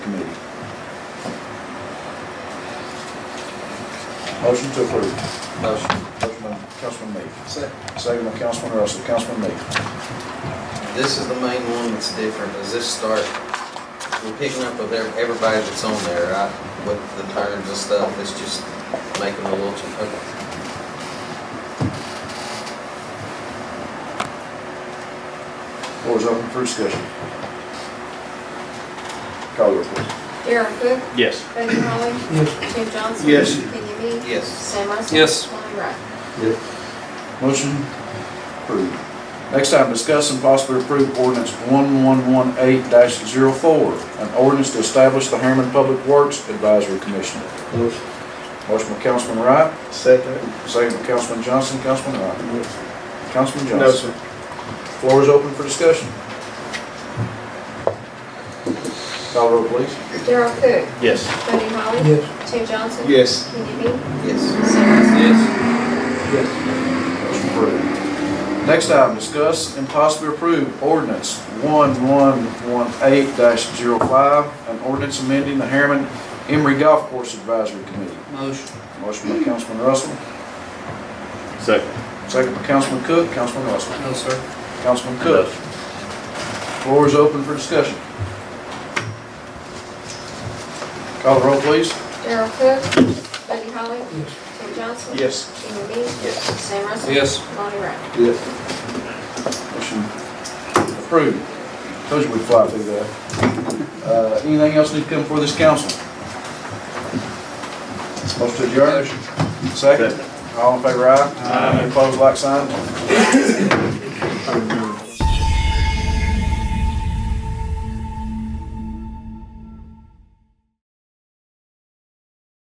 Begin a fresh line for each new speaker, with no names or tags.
Motion to approve.
Motion.
Motion by Councilman Meek.
Second.
Second by Councilman Russell. Councilman Meek.
This is the main one that's different, is this start, we're picking up with ev- everybody that's on there, right? With the terms and stuff, it's just making a little, ch- okay.
Floor is open for discussion. Call the roll, please.
Darren Cook?
Yes.
Buddy Holly? Yes. Jim Johnson?
Yes.
Kenny Me?
Yes.
Sam Russell?
Yes.
Lonnie Wright?
Motion approved. Next item, discuss and possibly approve ordinance 1118-04, an ordinance to establish the Harriman Public Works Advisory Commission.
Motion.
Motion by Councilman Wright,
Second.
second by Councilman Johnson, Councilman Wright. Councilman Johnson.
No, sir.
Floor is open for discussion. Call roll, please.
Darren Cook?
Yes.
Buddy Holly? Yes. Jim Johnson?
Yes.
Kenny Me?
Yes.
Sam Russell?
Yes.
Yes.
Motion approved. Next item, discuss and possibly approve ordinance 1118-05, an ordinance amending the Harriman Emery Golf Course Advisory Committee.
Motion.
Motion by Councilman Russell,
Second.
second by Councilman Cook, Councilman Russell.
No, sir.
Councilman Cook, floor is open for discussion. Call the roll, please.
Darren Cook? Buddy Holly? Jim Johnson?
Yes.
Kenny Me?
Yes.
Sam Russell?
Yes.
Lonnie Wright?
Yes.
Motion approved. Told you we'd fly through that. Uh, Anything else need to come before this council? Motion to adjourn? Second. All in favor, aye? Aye. Opposed, like sign?